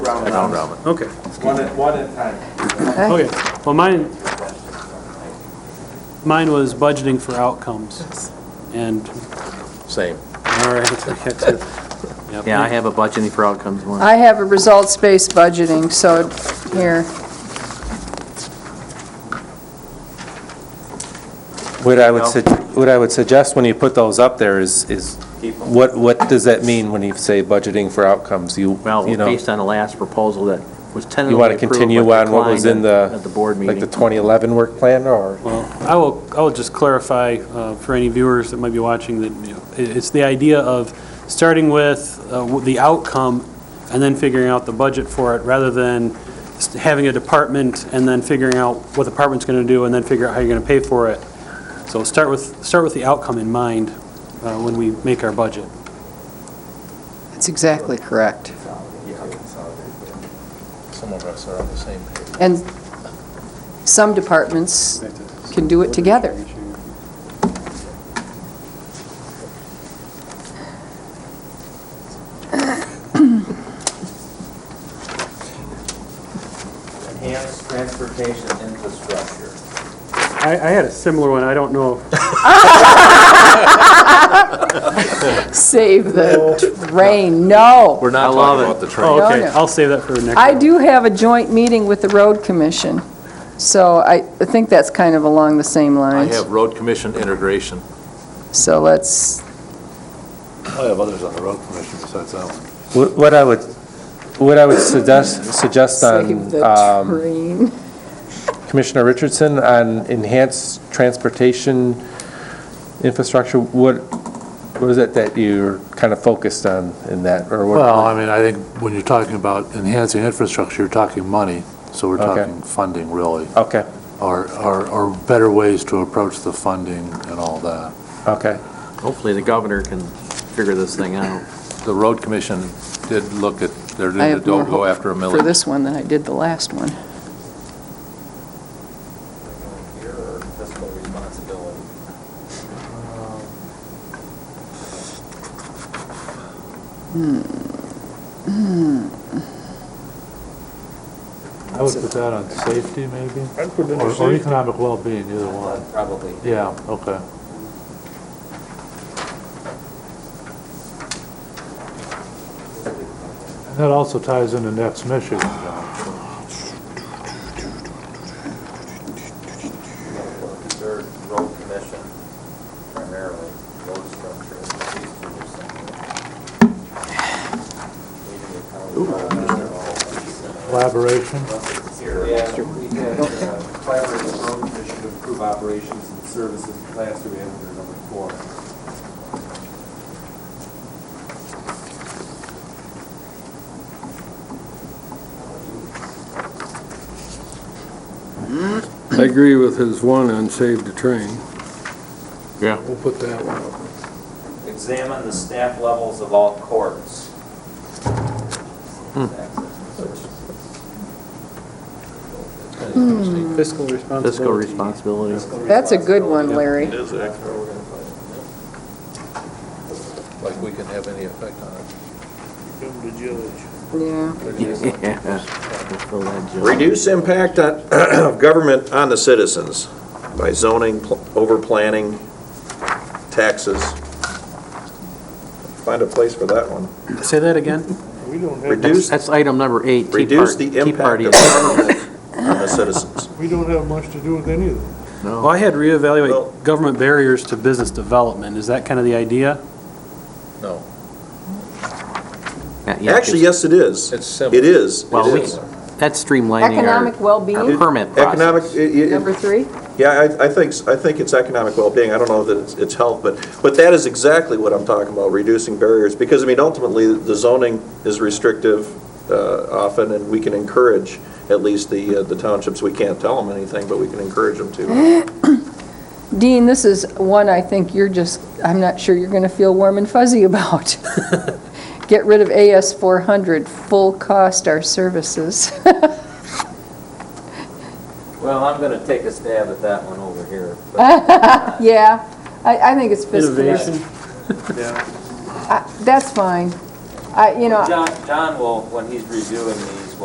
Round Round robin. Okay, One at, one at a time. okay. Well, mine, mine was budgeting for outcomes. And, Same. all right. I got to- yep. Yeah, I have a budgeting for outcomes one. I have a results-based budgeting, so here, What I would, sug- what I would suggest when you put those up there is, is what, what does that mean when you say budgeting for outcomes? You, Well, you know, based on the last proposal that was tentatively you want to approved. continue but on what was in declined the, At the board like the meeting. 2011 work plan or? Well, I will, I will just clarify uh, for any viewers that might be watching that, you know, it- it's the idea of starting with uh, w- the outcome and then figuring out the budget for it, rather than s- having a department and then figuring out what the department's going to do and then figure out how you're going to pay for it. So start with, start with the outcome in mind uh, when we make our budget. that's exactly correct. Some of us are on the same page. And some departments can do it together. Enhanced transportation infrastructure. I, I had a similar one, I don't know. Save the rain, no. We're not I love talking it. about the train. Oh, okay, No, no. I'll save that for next. I one. do have a joint meeting with the road commission, so I I think that's kind of along the same I lines. have road commission integration. So let's, I have others on the road commission besides that one. What what I would, what I would suggest, suggest save on the um, train. Commissioner Richardson on enhanced transportation infrastructure, what, what is it that you're kind of focused on in that, or what? Well, I mean, I think when you're talking about enhancing infrastructure, you're talking money, so we're Okay. talking funding really, Okay, or, or, or better ways to approach the funding and all that. okay. Hopefully the governor can figure this thing out. The road commission did look at, they're, I have more don't go hope after a for millage. this one than I did the last one. Here or fiscal responsibility? I would put that on safety maybe, or or economic well-being, either one. Uh, Probably. Yeah, okay. And that also ties into next mission, John. Third, road commission primarily, road structure, these two are separate. Collaboration. Yeah, we had uh, collaborated with road commission to improve operations and services, last year we had it under number four. I agree with his one on save the train. Yeah. We'll put that one up. Examine the staff levels of all courts. Fiscal Fiscal responsibility. responsibility. Hmm, That's a good one, Larry. Like we can have any effect on it. Yeah. Yeah. Fill that job. Reduce impact on, of government on the citizens by zoning, pl- overplanning, taxes. Find a place for that one. Say that again? That's, Reduce, that's item number eight. Tea reduce Party- the Tea impact Party of government on the citizens. We don't have much to do with any of that. Well, I had Well- reevaluate government barriers to business development. Is that kind of the idea? No, Yeah, yeah, Actually, yes, it is. it's It simple. is. It Well, we- is. That's streamlining Economic our, well-being, our permit Economic, process. i- i- number three? Yeah, I, I think, I think it's economic well-being, I don't know that it's, it's health, but, but that is exactly what I'm talking about, reducing barriers, because, I mean, ultimately, the zoning is restrictive uh, often, and we can encourage, at least the, uh, the townships, we can't tell them anything, but we can encourage them to. Dean, this is one I think you're just, I'm not sure you're going to feel warm and fuzzy about. Get rid of AS 400, full cost our services. Well, I'm gonna take a stab at that one over here. Yeah, I, I think it's fiscal. Innovation? I- That's fine. I, you know. John, John will, when he's reviewing these, will